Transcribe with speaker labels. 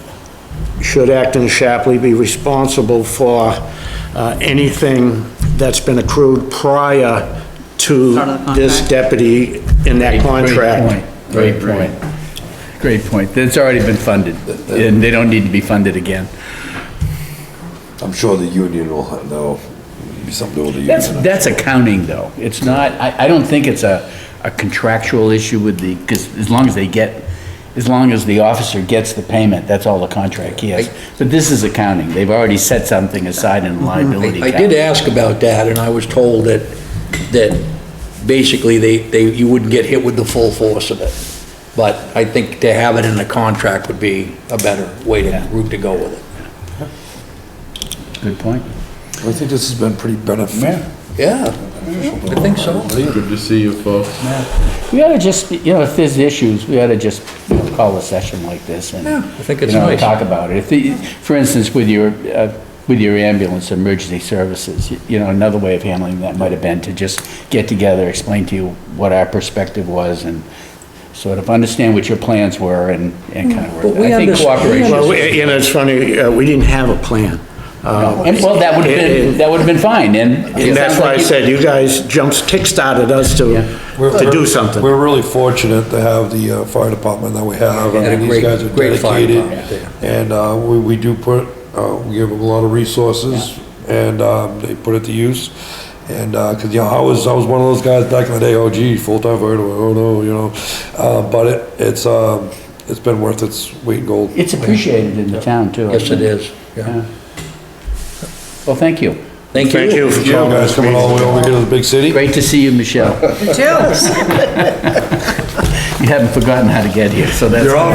Speaker 1: should Acton Shapley be responsible for uh, anything that's been accrued prior to
Speaker 2: Start of the
Speaker 1: this
Speaker 2: contract.
Speaker 1: deputy in that contract?
Speaker 3: Great point. Great point. It's already been funded, and they don't need to be funded again.
Speaker 4: I'm sure the union will, know, be something to do with the
Speaker 3: That's,
Speaker 4: union.
Speaker 3: that's accounting, though. It's not, I, I don't think it's a, a contractual issue with the, because as long as they get, as long as the officer gets the payment, that's all the contract he has. But this is accounting. They've already set something aside in liability.
Speaker 5: I I did
Speaker 3: cap.
Speaker 5: ask about that, and I was told that, that basically they, they, you wouldn't get hit with the full force of it. But I think to have it in the contract would be a better way to, route to go with it.
Speaker 3: Good point.
Speaker 4: I think this has been pretty beneficial.
Speaker 5: Yeah, I think so.
Speaker 6: Good to see you folks.
Speaker 3: We ought to just, you know, if there's issues, we ought to just, you know, call a session like this and.
Speaker 5: Yeah, I think it's
Speaker 3: you know,
Speaker 5: nice.
Speaker 3: Talk about it. If the, for instance, with your, uh, with your ambulance emergency services, y- you know, another way of handling that might have been to just get together, explain to you what our perspective was and sort of understand what your plans were and, and kind of work.
Speaker 5: Mm. But we
Speaker 3: I think
Speaker 5: understand- we
Speaker 3: cooperation.
Speaker 1: Well,
Speaker 5: understand-
Speaker 1: we- you know, it's funny, uh, we didn't have a plan. Uh,
Speaker 3: And, well, that would have been, that would have been fine and.
Speaker 1: And that's why I said, you guys jumps, kickstarted us to, to do something.
Speaker 4: We're really fortunate to have the uh, fire department that we have.
Speaker 5: Yeah,
Speaker 4: I mean, These
Speaker 5: great-
Speaker 4: guys are
Speaker 5: great fire
Speaker 4: dedicated.
Speaker 5: department,
Speaker 4: And uh, we, we do put, uh, we give them a lot of resources and um, they put it to use. And, uh 'cause cause you know, I was, I was one of those guys back in the day, oh gee, full-time fire department, oh no, you know. Uh, but it, it's, um, it's been worth its weight in gold.
Speaker 3: It's appreciated in the town too. I
Speaker 5: Yes, it
Speaker 3: think.
Speaker 5: is, yeah.
Speaker 3: Well, thank you.
Speaker 5: Thank
Speaker 1: Thank
Speaker 5: you.
Speaker 1: you for
Speaker 4: You
Speaker 1: calling
Speaker 4: guys
Speaker 1: us.
Speaker 4: coming all the way over here to the big city.
Speaker 3: Great to see you, Michelle.
Speaker 2: You too.
Speaker 3: You haven't forgotten how to get here, so that's.
Speaker 4: You're all